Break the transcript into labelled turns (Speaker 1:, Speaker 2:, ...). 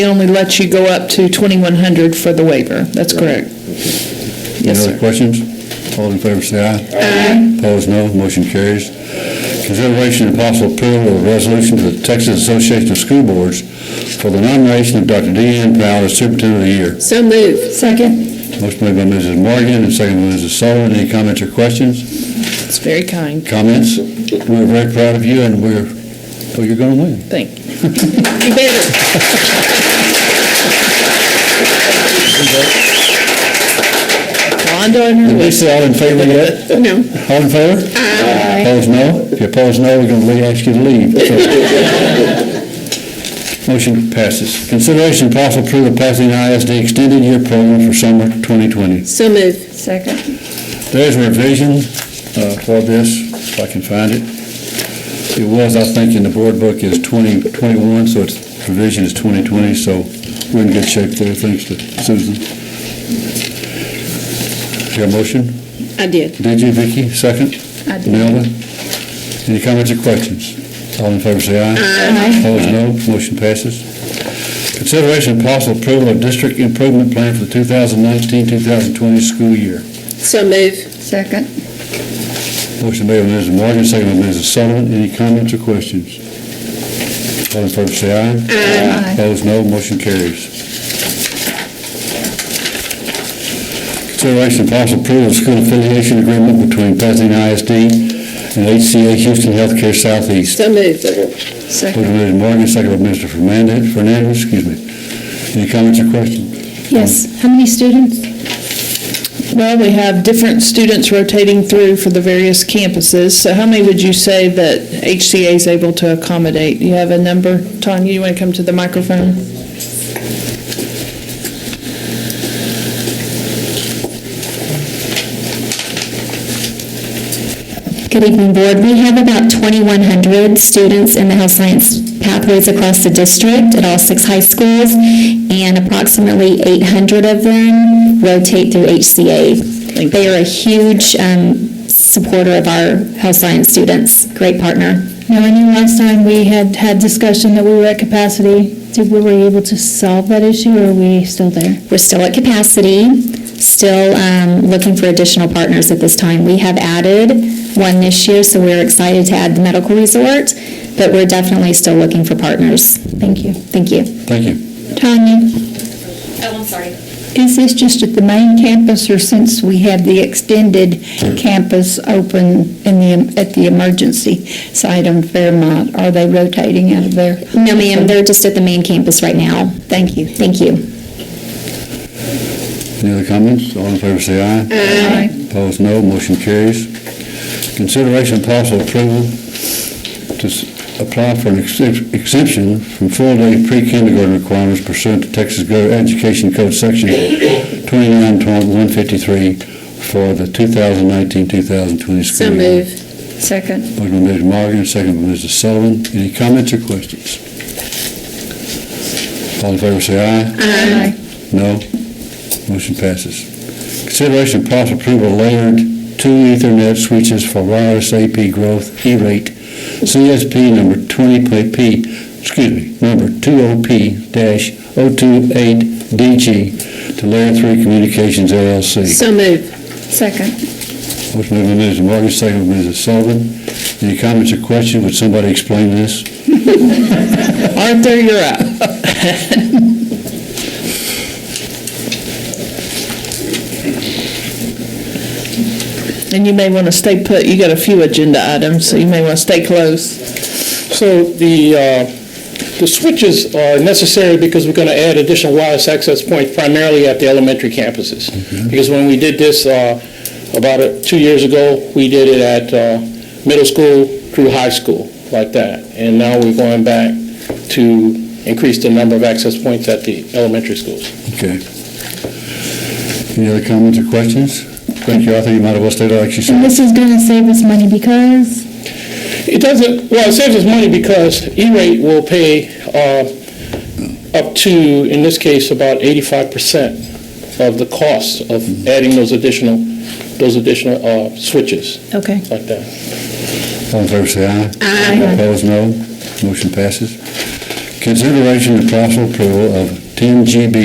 Speaker 1: It only lets you go up to 2,100 for the waiver. That's correct.
Speaker 2: Any
Speaker 1: Yes,
Speaker 2: other
Speaker 1: sir.
Speaker 2: questions? All in favor, say aye. Aye. Opposed, no. Motion carries. Consideration and possible approval of resolution to the Texas Association of School Boards for the nomination of Dr. Deanne Powell as Superintendent of the Year.
Speaker 3: So moved. Second.
Speaker 2: Motion made by Mrs. Morgan and seconded by Mrs. Sullivan. Any comments or questions?
Speaker 1: It's very kind.
Speaker 2: Comments? We're very proud of you, and we're, well, you're going to win.
Speaker 1: Thank you. You better. Wanda on her
Speaker 2: Did
Speaker 1: way.
Speaker 2: we say all in favor yet?
Speaker 3: No.
Speaker 2: All in favor? Aye. Opposed, no? If you oppose no, we're going to leave- ask you to leave. So- Motion passes. Consideration and possible approval of passing ISD extended year program for summer 2020.
Speaker 3: So moved. Second.
Speaker 2: There's a revision uh, for this, if I can find it. It was, I think, in the board book is 2021, so its revision is 2020, so we're in good shape there, thanks to Susan. Your motion?
Speaker 3: I did.
Speaker 2: Did you, Vicki? Second?
Speaker 3: I did.
Speaker 2: Melvin? Any comments or questions? All in favor, say aye.
Speaker 3: Aye.
Speaker 2: Opposed, no. Motion passes. Consideration and possible approval of district improvement plan for the 2019-2020 school year.
Speaker 3: So moved. Second.
Speaker 2: Motion made by Mrs. Morgan, second by Mrs. Sullivan. Any comments or questions? All in favor, say aye. Aye. Opposed, no. Motion carries. Consideration and possible approval of school affiliation agreement between Pasadena ISD and HCA Houston Healthcare Southeast.
Speaker 3: So moved.
Speaker 2: Motion
Speaker 3: Second.
Speaker 2: made by Morgan, second by Mr. Fernandez, Fernandez, excuse me. Any comments or questions?
Speaker 4: Yes, how many students?
Speaker 1: Well, we have different students rotating through for the various campuses. So how many would you say that HCA is able to accommodate? Do you have a number? Tanya, you want to come to the microphone?
Speaker 4: Good evening, Board. We have about 2,100 students in the health science pathways across the district at all six high schools, and approximately 800 of them rotate through HCA. They are a huge um, supporter of our health science students, great partner.
Speaker 5: Now, I knew last time we had had discussion that we were at capacity. Did, were we able to solve that issue, or are we still there?
Speaker 4: We're still at capacity, still um, looking for additional partners at this time. We have added one this year, so we're excited to add the medical resort, but we're definitely still looking for partners. Thank you. Thank you.
Speaker 2: Thank you.
Speaker 5: Tanya,
Speaker 4: Oh, I'm sorry.
Speaker 5: is this just at the main campus, or since we have the extended campus open in the, at the emergency site on Fairmont, are they rotating out of there?
Speaker 4: No, ma'am, they're just at the main campus right now. Thank you. Thank you.
Speaker 2: Any other comments? All in favor, say aye.
Speaker 5: Aye.
Speaker 2: Opposed, no. Motion carries. Consideration and possible approval to s- apply for an excep- exemption from full-day pre-kindergarten requirements pursuant to Texas Go- Education Code Section 29.153 for the 2019-2020
Speaker 3: So
Speaker 2: school year.
Speaker 3: moved.
Speaker 5: Second.
Speaker 2: Motion by Mrs. Morgan, second by Mrs. Sullivan. Any comments or questions? All in favor, say aye.
Speaker 5: Aye.
Speaker 2: No. Motion passes. Consideration and possible approval of layered two Ethernet switches for wireless AP growth E E-rate CSP number 20P, excuse me, number 20P-028DG to Layer 3 Communications LLC.
Speaker 3: So moved.
Speaker 5: Second.
Speaker 2: Motion made by Mrs. Morgan, second by Mrs. Sullivan. Any comments or questions? Would somebody explain this?
Speaker 1: Arthur, you're up. And you may want to stay put, you got a few agenda items, so you may want to stay close.
Speaker 6: So the, uh, the switches are necessary because we're going to add additional wireless access points primarily at the elementary campuses. Because when we did this uh, about uh, two years ago, we did it at uh, middle school through high school, like that. And now we're going back to increase the number of access points at the elementary schools.
Speaker 2: Okay. Any other comments or questions? Thank you, Arthur. You might have well stated like you said.
Speaker 5: And this is going to save us money because?
Speaker 6: It doesn't, well, it saves us money because E-rate will pay uh, up to, in this case, about 85% of the cost of adding those additional, those additional uh, switches
Speaker 5: Okay.
Speaker 6: like that.
Speaker 2: All in favor, say aye. Aye. Opposed, no. Motion passes. Consideration and possible approval of 10 GB